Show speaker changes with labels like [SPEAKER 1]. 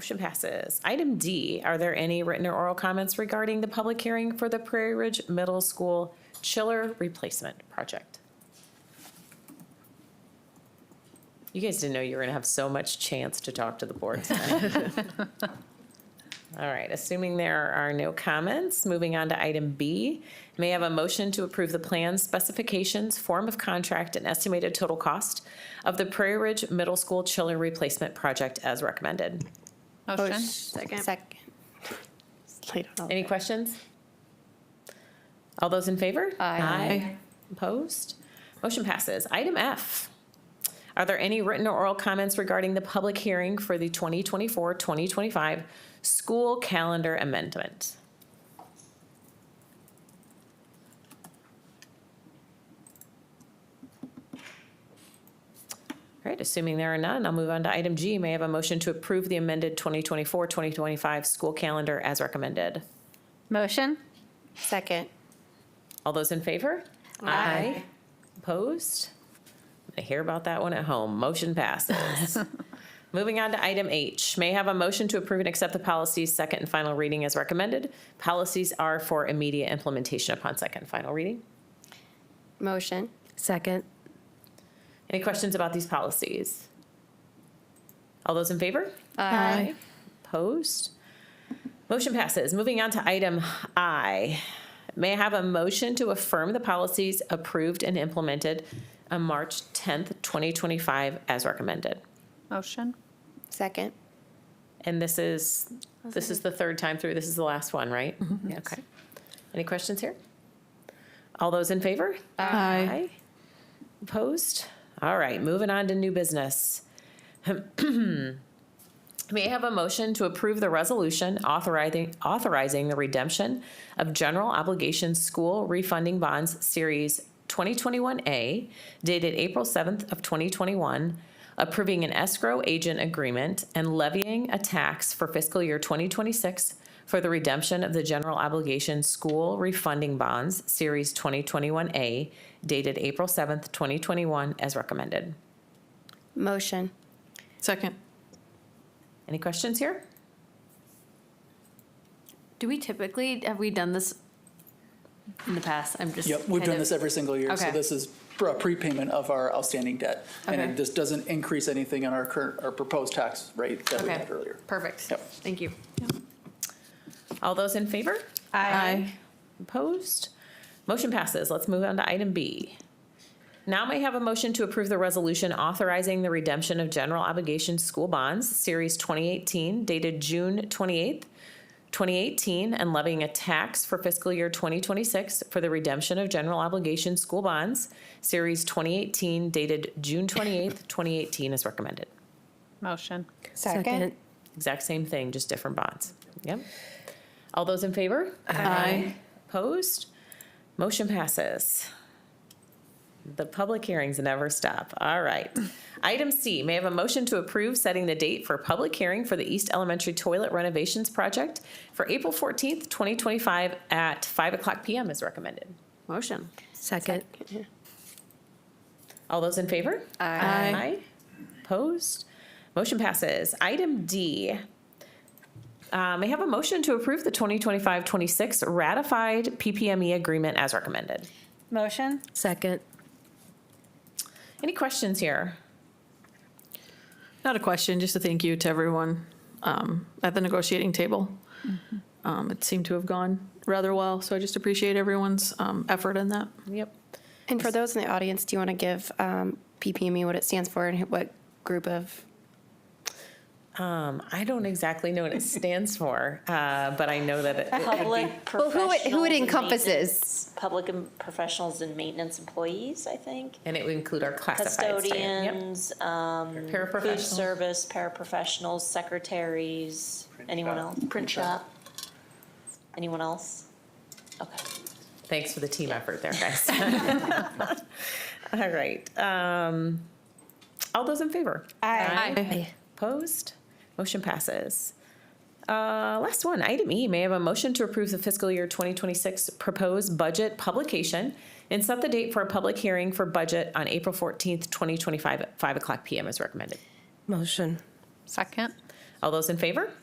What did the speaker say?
[SPEAKER 1] Motion passes. Item D, are there any written or oral comments regarding the public hearing for the Prairie Ridge Middle School chiller replacement project? You guys didn't know you were gonna have so much chance to talk to the board tonight. All right, assuming there are no comments, moving on to item B. May I have a motion to approve the plans, specifications, form of contract, and estimated total cost of the Prairie Ridge Middle School chiller replacement project as recommended?
[SPEAKER 2] Oh,
[SPEAKER 3] Motion.
[SPEAKER 4] Second.
[SPEAKER 5] Second. Later.
[SPEAKER 1] Any questions? All those in favor?
[SPEAKER 3] Aye.
[SPEAKER 1] Opposed? Motion passes. Item F. Are there any written or oral comments regarding the public hearing for the 2024-2025 school calendar amendment? All right, assuming there are none, I'll move on to item G. May I have a motion to approve the amended 2024-2025 school calendar as recommended?
[SPEAKER 3] Motion.
[SPEAKER 5] Second.
[SPEAKER 1] All those in favor?
[SPEAKER 5] Aye.
[SPEAKER 1] Opposed? I hear about that one at home. Motion passes. Moving on to item H, may I have a motion to approve and accept the policies second and final reading as recommended. Policies are for immediate implementation upon second and final reading.
[SPEAKER 5] Motion. Second.
[SPEAKER 1] Any questions about these policies? All those in favor?
[SPEAKER 5] Aye.
[SPEAKER 1] Opposed? Motion passes. Moving on to item I. May I have a motion to affirm the policies approved and implemented on March 10th, 2025 as recommended?
[SPEAKER 3] Motion.
[SPEAKER 5] Second.
[SPEAKER 1] And this is, this is the third time through. This is the last one, right? Okay. Any questions here? All those in favor? Aye. Opposed? All right, moving on to new business. May I have a motion to approve the resolution authorizing, authorizing the redemption of general obligation school refunding bonds series 2021A dated April 7th of 2021, approving an escrow agent agreement and levying a tax for fiscal year 2026 for the redemption of the general obligation school refunding bonds series 2021A dated April 7th, 2021 as recommended.
[SPEAKER 5] Motion.
[SPEAKER 4] Second.
[SPEAKER 1] Any questions here?
[SPEAKER 2] Do we typically, have we done this in the past? I'm just.
[SPEAKER 6] Yep, we've
[SPEAKER 2] kind
[SPEAKER 6] done
[SPEAKER 2] of-
[SPEAKER 6] this every single year. So
[SPEAKER 2] Okay.
[SPEAKER 6] this is pr- a prepayment of our outstanding debt. And
[SPEAKER 2] Okay.
[SPEAKER 6] it just doesn't increase anything on our current, our proposed tax rate that we
[SPEAKER 2] Okay.
[SPEAKER 6] had earlier.
[SPEAKER 2] Perfect.
[SPEAKER 6] Yep.
[SPEAKER 2] Thank you.
[SPEAKER 1] All those in favor?
[SPEAKER 4] Aye.
[SPEAKER 1] Opposed? Motion passes. Let's move on to item B. Now may I have a motion to approve the resolution authorizing the redemption of general obligation school bonds, Series 2018, dated June 28th, 2018, and levying a tax for fiscal year 2026 for the redemption of general obligation school bonds, Series 2018, dated June 28th, 2018, as recommended.
[SPEAKER 3] Motion.
[SPEAKER 5] Second.
[SPEAKER 1] Exact same thing, just different bonds. Yep. All those in favor?
[SPEAKER 4] Aye.
[SPEAKER 1] Opposed? Motion passes. The public hearings never stop. All right. Item C, may I have a motion to approve setting the date for public hearing for the East Elementary Toilet Renovations Project for April 14th, 2025 at 5 o'clock PM as recommended.
[SPEAKER 2] Motion.
[SPEAKER 5] Second.
[SPEAKER 1] All those in favor?
[SPEAKER 4] Aye.
[SPEAKER 1] Opposed? Motion passes. Item D. Uh, May I have a motion to approve the 2025-26 ratified PPME E agreement as recommended?
[SPEAKER 3] Motion.
[SPEAKER 5] Second.
[SPEAKER 1] Any questions here?
[SPEAKER 4] Not a question, just a thank you to everyone um, at the negotiating table. Um, It seemed to have gone rather well, so I just appreciate everyone's um, effort in that.
[SPEAKER 1] Yep.
[SPEAKER 5] And for those in the audience, do you want to give um, PPME what it stands for and what group of?
[SPEAKER 1] Um, I don't exactly know what it stands for, uh, but I know that it-
[SPEAKER 7] Public
[SPEAKER 5] Well, who it- who it
[SPEAKER 7] professionals and
[SPEAKER 5] encompasses.
[SPEAKER 7] maintenance- Public and professionals and maintenance employees, I think.
[SPEAKER 1] and it would include our classified staff. Yep.
[SPEAKER 7] Custodians, um, food
[SPEAKER 1] Paraprofessionals.
[SPEAKER 7] service, paraprofessionals, secretaries, anyone
[SPEAKER 6] shop.
[SPEAKER 7] else? Print shop. Anyone else? Okay.
[SPEAKER 1] Thanks for the team effort there, guys. All right. um, All those in favor?
[SPEAKER 4] Aye.
[SPEAKER 1] Opposed? Motion passes. Uh, Last one, item E, may I have a motion to approve the fiscal year 2026 proposed budget publication and set the date for a public hearing for budget on April 14th, 2025, at 5 o'clock PM as recommended.
[SPEAKER 3] Second.
[SPEAKER 1] All those in favor?